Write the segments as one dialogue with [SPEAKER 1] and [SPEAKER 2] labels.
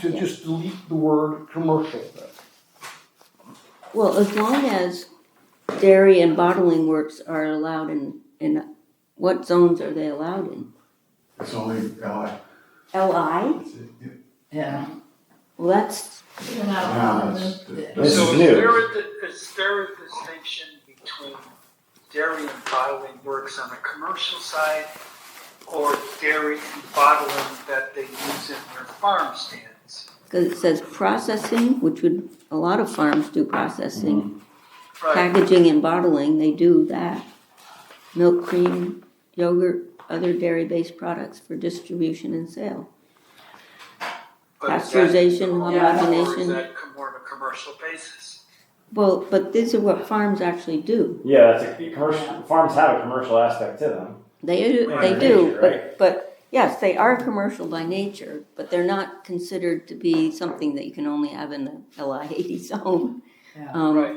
[SPEAKER 1] to just delete the word commercial.
[SPEAKER 2] Well, as long as dairy and bottling works are allowed in, in, what zones are they allowed in?
[SPEAKER 3] It's only, uh,
[SPEAKER 2] LI?
[SPEAKER 3] it's, it,
[SPEAKER 4] Yeah.
[SPEAKER 2] Well, that's,
[SPEAKER 4] You're not allowed
[SPEAKER 3] that's-
[SPEAKER 4] to move
[SPEAKER 5] This
[SPEAKER 4] it.
[SPEAKER 6] So
[SPEAKER 5] is
[SPEAKER 6] is
[SPEAKER 5] new.
[SPEAKER 6] there a, di- is there a distinction between dairy and bottling works on the commercial side or dairy and bottling that they use in their farm stands?
[SPEAKER 2] cause it says processing, which would, a lot of farms do processing.
[SPEAKER 6] Right,
[SPEAKER 2] Packaging and bottling, they do that. Milk, cream, yogurt, other dairy-based products for distribution and sale.
[SPEAKER 6] but is that
[SPEAKER 2] pasteurization,
[SPEAKER 6] commercial Or is
[SPEAKER 2] homogenization.
[SPEAKER 6] that com- more of a commercial basis?
[SPEAKER 2] Well, but these are what farms actually do.
[SPEAKER 5] Yeah, it's a, commercial, farms have a commercial aspect to them.
[SPEAKER 2] They do,
[SPEAKER 5] By
[SPEAKER 2] they
[SPEAKER 5] nature,
[SPEAKER 2] do,
[SPEAKER 5] right?
[SPEAKER 2] but, but, yes, they are commercial by nature, but they're not considered to be something that you can only have in the LI eighty zone.
[SPEAKER 4] Yeah.
[SPEAKER 2] Um,
[SPEAKER 6] Right.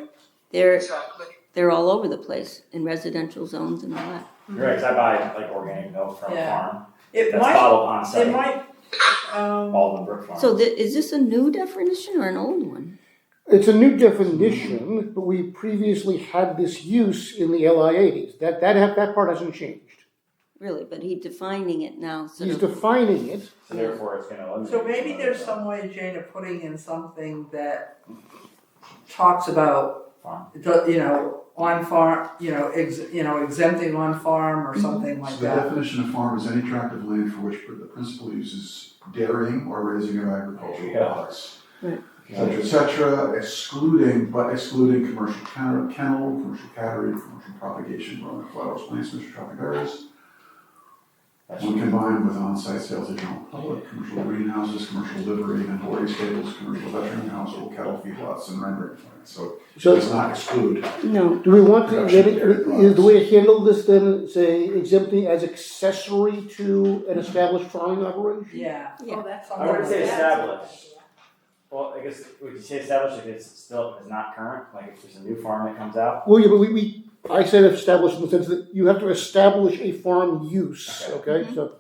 [SPEAKER 2] they're,
[SPEAKER 6] Exactly.
[SPEAKER 2] they're all over the place in residential zones and all that.
[SPEAKER 5] You're right, 'cause I buy like organic milk from a
[SPEAKER 4] Yeah.
[SPEAKER 5] farm
[SPEAKER 4] It
[SPEAKER 5] that's
[SPEAKER 4] might,
[SPEAKER 5] bottled on
[SPEAKER 4] it
[SPEAKER 5] site,
[SPEAKER 4] might, um,
[SPEAKER 5] all in Brook Farm.
[SPEAKER 2] So thi- is this a new definition or an old one?
[SPEAKER 1] It's a new definition, but we previously had this use in the LI eighties. That, that, ha- that part hasn't changed.
[SPEAKER 2] Really, but he defining it now,
[SPEAKER 1] He's
[SPEAKER 2] sort of,
[SPEAKER 1] defining it.
[SPEAKER 5] So therefore, it's gonna eliminate.
[SPEAKER 4] so maybe
[SPEAKER 5] some of
[SPEAKER 4] there's
[SPEAKER 5] the
[SPEAKER 4] some way, Jane, of putting in something that talks about,
[SPEAKER 5] Farm.
[SPEAKER 4] the, you know, on farm, you know, ex, you know, exempting on farm or something
[SPEAKER 3] so
[SPEAKER 4] like
[SPEAKER 3] the
[SPEAKER 4] that.
[SPEAKER 3] definition of farm is any tract of land for which the principal uses dairying or raising of agricultural
[SPEAKER 5] Yeah.
[SPEAKER 3] products.
[SPEAKER 2] Right.
[SPEAKER 3] Et cetera, et cetera, excluding, but excluding commercial kennel, kennel, commercial cattery, commercial propagation, growing of flowers, plants, and tropic berries.
[SPEAKER 5] That's
[SPEAKER 3] When combined with on-site sales to general public, commercial greenhouses, commercial livery, and hoarding stables, commercial veterinary household cattle feedlots, and rendering plants. So it
[SPEAKER 1] So-
[SPEAKER 3] does not exclude.
[SPEAKER 2] no,
[SPEAKER 1] Do we want to,
[SPEAKER 3] Production
[SPEAKER 1] let
[SPEAKER 3] of dairy
[SPEAKER 1] it- is
[SPEAKER 3] products.
[SPEAKER 1] the way to handle this then, say exempting as accessory to an established farming operation?
[SPEAKER 4] Yeah.
[SPEAKER 2] Yeah.
[SPEAKER 7] Oh, that's.
[SPEAKER 4] I
[SPEAKER 5] I wouldn't say
[SPEAKER 4] That's-
[SPEAKER 5] established. Well, I guess, would you say established if it's still, if it's not current, like if there's a new farm that comes out?
[SPEAKER 1] Well, yeah, but we, we, I said established in the sense that you have to establish a farm use, okay? So,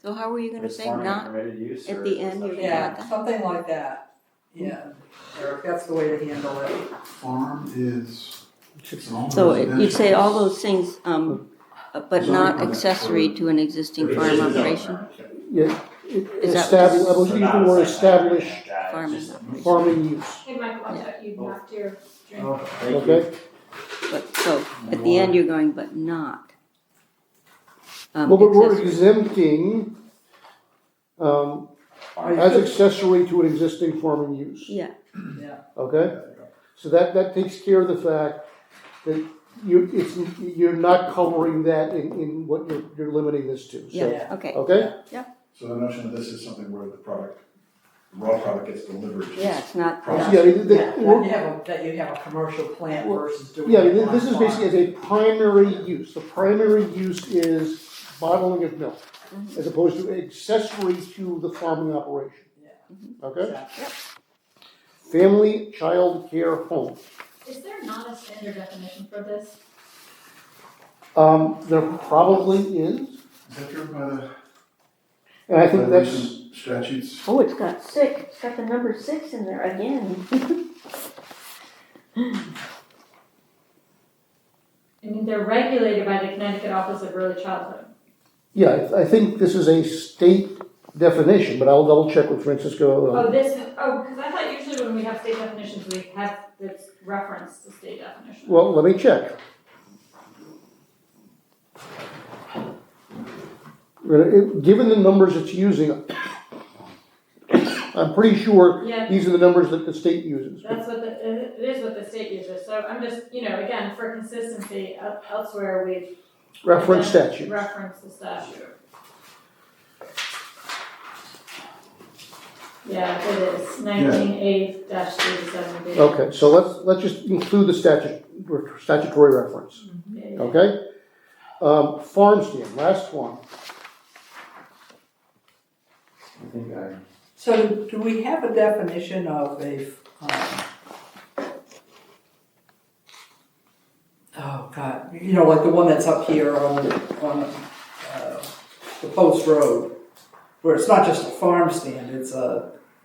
[SPEAKER 2] so how were you gonna
[SPEAKER 5] Is
[SPEAKER 2] say
[SPEAKER 5] farming a
[SPEAKER 2] not?
[SPEAKER 5] permitted use
[SPEAKER 2] at
[SPEAKER 5] or
[SPEAKER 2] the
[SPEAKER 5] is it
[SPEAKER 2] end, you're
[SPEAKER 5] something-
[SPEAKER 2] Yeah.
[SPEAKER 4] Yeah, something like that, yeah, Eric, that's the way to handle it.
[SPEAKER 3] Farm is, it's an all
[SPEAKER 2] So it- you'd say all
[SPEAKER 3] residential.
[SPEAKER 2] those things, um, uh, but
[SPEAKER 3] Zoning
[SPEAKER 2] not
[SPEAKER 3] permit
[SPEAKER 2] accessory
[SPEAKER 3] for-
[SPEAKER 2] to an existing
[SPEAKER 5] Which
[SPEAKER 2] farm
[SPEAKER 5] is a
[SPEAKER 2] operation.
[SPEAKER 5] permit.
[SPEAKER 1] yeah,
[SPEAKER 2] Is that-
[SPEAKER 1] establish, I was
[SPEAKER 5] So
[SPEAKER 1] using
[SPEAKER 5] not
[SPEAKER 1] the
[SPEAKER 5] a
[SPEAKER 1] word
[SPEAKER 5] site plan or anything
[SPEAKER 1] establish
[SPEAKER 5] like that, it's
[SPEAKER 2] farming
[SPEAKER 5] just-
[SPEAKER 2] operation.
[SPEAKER 1] farming use,
[SPEAKER 7] Hey, Michael, I thought
[SPEAKER 1] Oh.
[SPEAKER 7] you knocked your drink.
[SPEAKER 5] Oh, thank you.
[SPEAKER 1] okay?
[SPEAKER 2] But, so, at the end, you're going, but not. um,
[SPEAKER 1] Well, but we're
[SPEAKER 2] accessory.
[SPEAKER 1] exempting, um,
[SPEAKER 4] Oh,
[SPEAKER 5] Farm.
[SPEAKER 1] as accessory to an existing farming use.
[SPEAKER 2] Yeah,
[SPEAKER 1] Okay? So that, that takes care of the fact that you, it's, you're not covering that in, in what you're, you're limiting this to, so,
[SPEAKER 2] yeah, okay,
[SPEAKER 1] okay?
[SPEAKER 8] So the notion of this is something where the product, the raw product gets delivered. to
[SPEAKER 2] yeah, it's not,
[SPEAKER 1] Yeah,
[SPEAKER 8] Process.
[SPEAKER 1] I mean, the-
[SPEAKER 4] Yeah, that you have a, that you have a commercial plant
[SPEAKER 1] Well,
[SPEAKER 4] versus doing.
[SPEAKER 1] yeah, I
[SPEAKER 4] it
[SPEAKER 1] mean,
[SPEAKER 4] on
[SPEAKER 1] this is
[SPEAKER 4] farm.
[SPEAKER 1] basically as a primary use, the primary use is bottling of milk,
[SPEAKER 2] Mm-hmm.
[SPEAKER 1] as opposed to accessory to the farming operation. Okay?
[SPEAKER 4] Yeah.
[SPEAKER 1] Family, child care, home.
[SPEAKER 7] Is there not a standard definition for this?
[SPEAKER 1] Um, there probably is,
[SPEAKER 3] Is that driven by
[SPEAKER 8] uh,
[SPEAKER 3] the,
[SPEAKER 1] and I
[SPEAKER 3] by
[SPEAKER 1] think that's,
[SPEAKER 3] recent statutes?
[SPEAKER 2] oh, it's got six, it's got the number six in there again.
[SPEAKER 7] I mean, they're regulated by the Connecticut Office of Early Childhood.
[SPEAKER 1] Yeah, I- I think this is a state definition, but I'll double check with Francisco.
[SPEAKER 7] Oh,
[SPEAKER 1] um,
[SPEAKER 7] this, oh, because I thought usually when we have state definitions, we have this reference to state definition.
[SPEAKER 1] Well, let me check. Uh, it- Given the numbers it's using, I'm pretty sure
[SPEAKER 7] Yeah.
[SPEAKER 1] these are the numbers that the state uses.
[SPEAKER 7] That's what the, it is what the state uses, so I'm just, you know, again, for consistency, el- elsewhere we.
[SPEAKER 1] Reference statute.
[SPEAKER 7] Reference the statute. Yeah, it is, nineteen eight dash thirty-seven B.
[SPEAKER 1] Okay, so let's, let's just include the statute, statutory reference, okay? Um, Farm stand, last one.
[SPEAKER 5] I think I-
[SPEAKER 4] So do we have a definition of a, um, oh God, you know, like the one that's up here on, on, uh, the post road, where it's not just a farm stand, it's a,